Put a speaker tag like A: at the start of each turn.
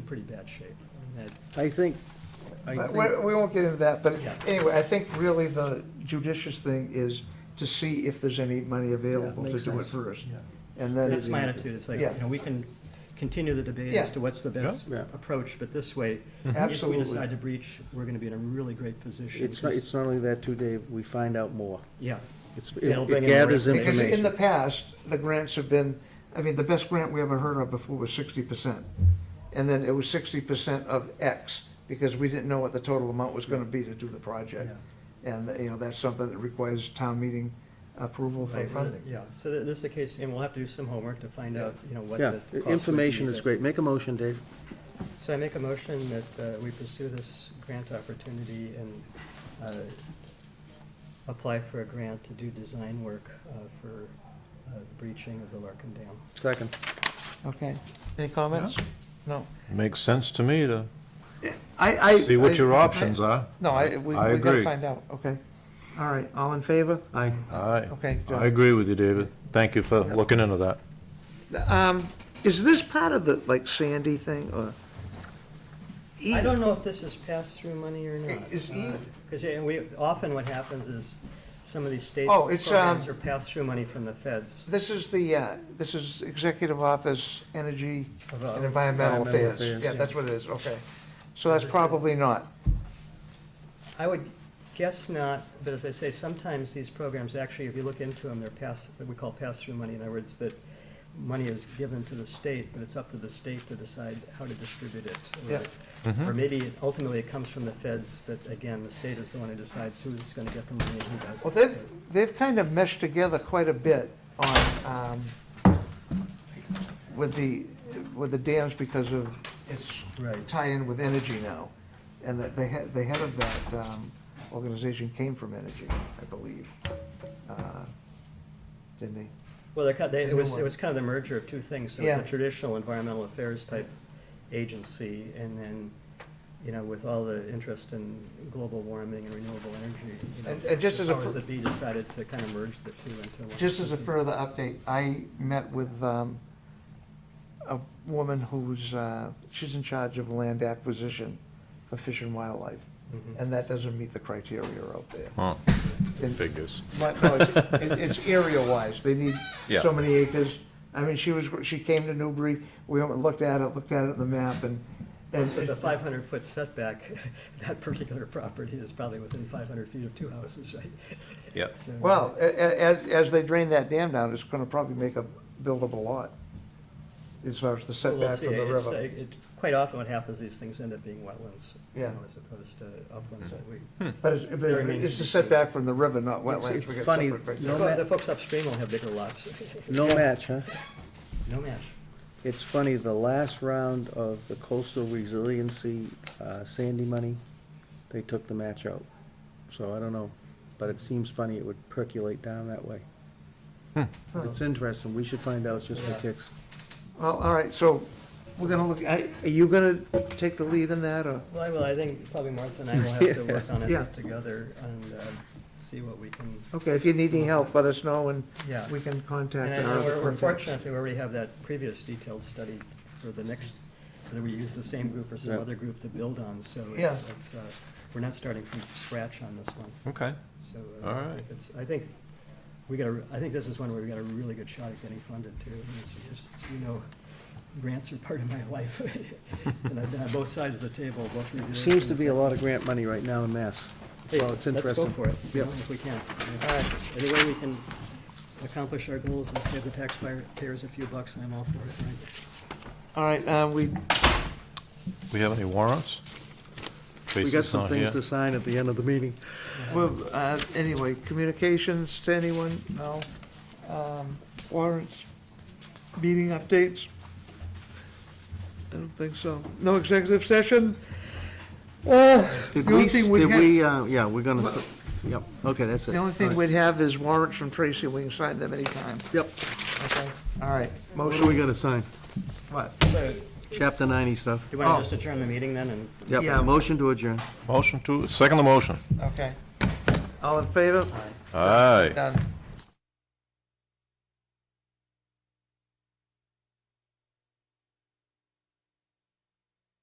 A: pretty bad shape. I mean, that-
B: I think, I
C: But
B: think,
C: We, we won't get into that, but
A: Yeah.
C: anyway, I think really the judicious thing is to see if there's any money available to
B: makes
C: do it
B: sense.
C: first.
A: Yeah.
C: And then.
A: That's my attitude, it's like, you
C: Yeah.
A: know, we can continue the debate
C: Yeah. Mm-hmm.
A: as to what's the best
B: Yeah.
A: approach, but this way, if we
C: Absolutely.
A: decide to breach, we're gonna be in a really great position.
B: it's not,
A: 'cause-
B: it's not only that too, Dave, we find out more.
A: Yeah,
B: It's,
A: They'll
B: it-
A: bring
B: it
A: in more
B: gathers
C: Because in
B: information.
C: the past, the grants have been, I mean, the best grant we ever heard of before was sixty percent. And then it was sixty percent of X, because we didn't know what the total amount was gonna be to do the project. And, you know, that's something that requires town meeting approval for
A: right,
C: funding.
A: yeah, so th- this is the case, and we'll have to do some homework to find out, you know, what
B: Yeah,
A: the. cost would
B: information
A: be,
B: is
A: but-
B: great. Make a motion, Dave.
A: So I make a motion that uh, we pursue this grant opportunity and uh, apply for a grant to do design work uh, for uh, breaching of the Larkin Dam.
B: Second.
C: Okay, any comments? No.
D: Makes sense to me to
C: I, I.
D: see what your
C: I-
D: options are.
C: No, I, we,
D: I
C: we gotta
D: agree.
C: find out, okay. All right, all in favor?
B: Aye.
D: Aye.
C: Okay, John.
D: I agree with you, David. Thank you for looking into that.
C: Um, is this part of the, like Sandy thing, or?
A: I don't know if this is pass-through money or not.
C: E.
A: Uh,
C: Is E-
A: Because we, often what happens is some of these state
C: Oh, it's,
A: programs
C: um,
A: are pass-through money from the feds.
C: This is the, uh, this is Executive Office Energy
A: About-
C: and Environmental
B: Environmental
C: Affairs.
B: Affairs,
C: Yeah,
B: yeah.
C: that's what it is, okay. So that's probably not.
A: I would guess not, but as I say, sometimes these programs, actually, if you look into them, they're pass, what we call pass-through money. In other words, that money is given to the state, but it's up to the state to decide how to distribute it. or-
C: Yeah.
A: Or maybe ultimately it comes from the feds, but again, the state is the one who decides who's gonna get the money and who doesn't.
C: Well, they've, they've kind of meshed together quite a bit on, um, with the, with the dams because of its
A: Right.
C: tie-in with energy now. And that they had, the head of that, um, organization came from energy, I believe. Uh, Didn't he?
A: Well, they're, kind- they-
C: The
A: it
C: new
A: was,
C: one.
A: it was kind of the merger of two things. So it's
C: Yeah.
A: a traditional environmental affairs type agency, and then, you know, with all the interest in global warming and renewable energy, you know.
C: And- and just as a
A: the powers
C: fir-
A: that be decided to kind of merge the two into one.
C: Just as a
A: agency.
C: further update, I met with um, a woman who's, uh, she's in charge of land acquisition for Fish and Wildlife,
A: Mhm.
C: and that doesn't meet the criteria out there.
D: Huh,
C: And-
D: figures.
C: But, no, it's- it- It's area-wise, they need
D: Yeah.
C: so many acres. I mean, she was, she came to Newbury, we went and looked at it, looked at it in the map, and, and
A: With the five hundred foot setback, that particular property is probably within five hundred feet of two houses, right?
D: Yep.
A: So,
C: well, a- a- as they drain that dam down, it's going to probably make a buildable lot, as far as the
A: Well, we'll
C: setback
A: see.
C: from the
A: It's, uh,
C: river.
A: it- Quite often what happens, these things end up being wetlands, you
C: Yeah. Hmm.
A: know, as opposed to uplands that we
C: But it's, but
A: There remains
C: it's
A: to
C: a
A: be
C: setback from the river, not
B: It's-
C: wetlands.
B: it's
C: We got
B: funny,
C: separate right
B: you
C: there.
B: know-
A: The fo-
B: ma-
A: The folks upstream will have bigger lots.
B: No match, huh?
A: No match.
B: It's funny, the last round of the coastal resiliency uh, Sandy money, they took the match out. So I don't know, but it seems funny it would percolate down that way.
A: Hmm.
B: It's interesting, we should find out just for kicks.
C: Well, all right, so we're gonna look, I- are you gonna take the lead in that, or?
A: Well, I will, I think probably Martha and I will have to work on
C: Yeah.
A: it together and uh, see what we can,
C: Okay, if you need any help, let us know, and
A: yeah.
C: we can
A: And
C: contact
A: I-
C: our
A: and
C: other
A: we're we're
C: contacts.
A: fortunate that we already have that previous detailed study for the next, whether we use the same group or some
B: Yeah.
A: other group to build on, so it's,
C: Yeah.
A: it's, uh, we're not starting from scratch on this one.
D: Okay.
A: So uh, I
D: All
A: think
D: right.
A: it's- I think we got a, I think this is one where we got a really good shot at getting funded too. And As as you know, grants are part of my life. And I've done both sides of the table, both reviewing.
B: Seems to be a lot of grant money right now in Mass, so
A: Hey,
B: it's interesting.
A: Let's go for it, you
B: Yep.
A: know, if we can. Any way we can accomplish our goals and save the taxpayers a few bucks, and I'm all for it, right?
C: All right, uh, we,
D: We have any warrants?
B: We got
D: Basis
B: some
D: on
B: things
D: here.
B: to sign at the end of the meeting.
C: well, uh, anyway, communications to anyone? No. Um, Warrants, meeting updates? I don't think so. No executive session? Uh,
B: Did
C: the only
B: we,
C: thing we'd
B: did
C: have-
B: we, uh, yeah, we're gonna, s- yep, okay, that's it.
C: The only thing
B: All right.
C: we'd have is warrants from Tracy, we can sign them anytime.
B: Yep,
C: Okay, all right.
B: what do we
C: Motion,
B: gotta sign?
C: what?
A: So,
B: Chapter ninety stuff.
A: you want
C: Oh.
A: to just adjourn the meeting then and?
C: Yeah.
B: Yep, motion to adjourn.
D: Motion to, second the motion.
C: Okay. All in favor?
D: Aye.
C: Done.